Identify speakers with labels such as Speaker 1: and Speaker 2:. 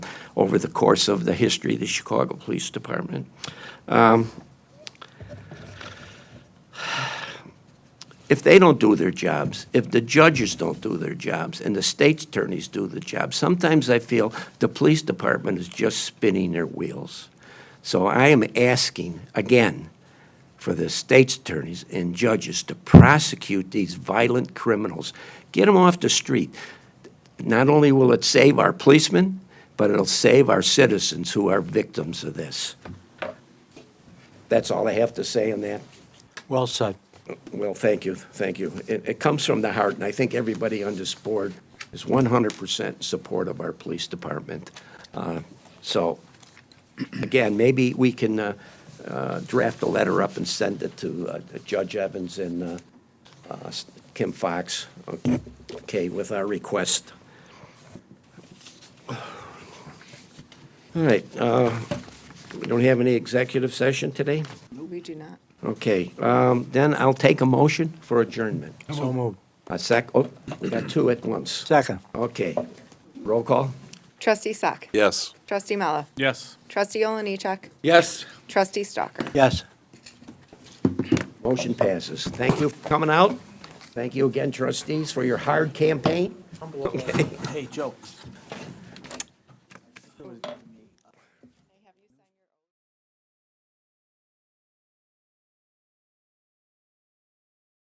Speaker 1: over the course of the history of the Chicago Police Department. Um, if they don't do their jobs, if the judges don't do their jobs, and the state's attorneys do the job, sometimes I feel the police department is just spinning their wheels. So I am asking again for the state's attorneys and judges to prosecute these violent criminals, get them off the street. Not only will it save our policemen, but it'll save our citizens who are victims of this. That's all I have to say on that.
Speaker 2: Well said.
Speaker 1: Well, thank you, thank you. It, it comes from the heart, and I think everybody on this board is 100% support of our police department. Uh, So, again, maybe we can uh, uh, draft a letter up and send it to uh, Judge Evans and uh, uh, Kim Fox, okay, with our request. All right, uh, we don't have any executive session today?
Speaker 3: We do not.
Speaker 1: Okay, um, then I'll take a motion for adjournment.
Speaker 2: So moved.
Speaker 1: A sec, oh, we got two at once.
Speaker 2: Second.
Speaker 1: Okay, roll call?
Speaker 3: Trustee Sack.
Speaker 4: Yes.
Speaker 3: Trustee Mallow.
Speaker 4: Yes.
Speaker 3: Trustee Oliniechek.
Speaker 4: Yes.
Speaker 3: Trustee Stalker.
Speaker 2: Yes.
Speaker 1: Motion passes. Thank you for coming out. Thank you again, trustees, for your hard campaign.
Speaker 2: Hey, Joe.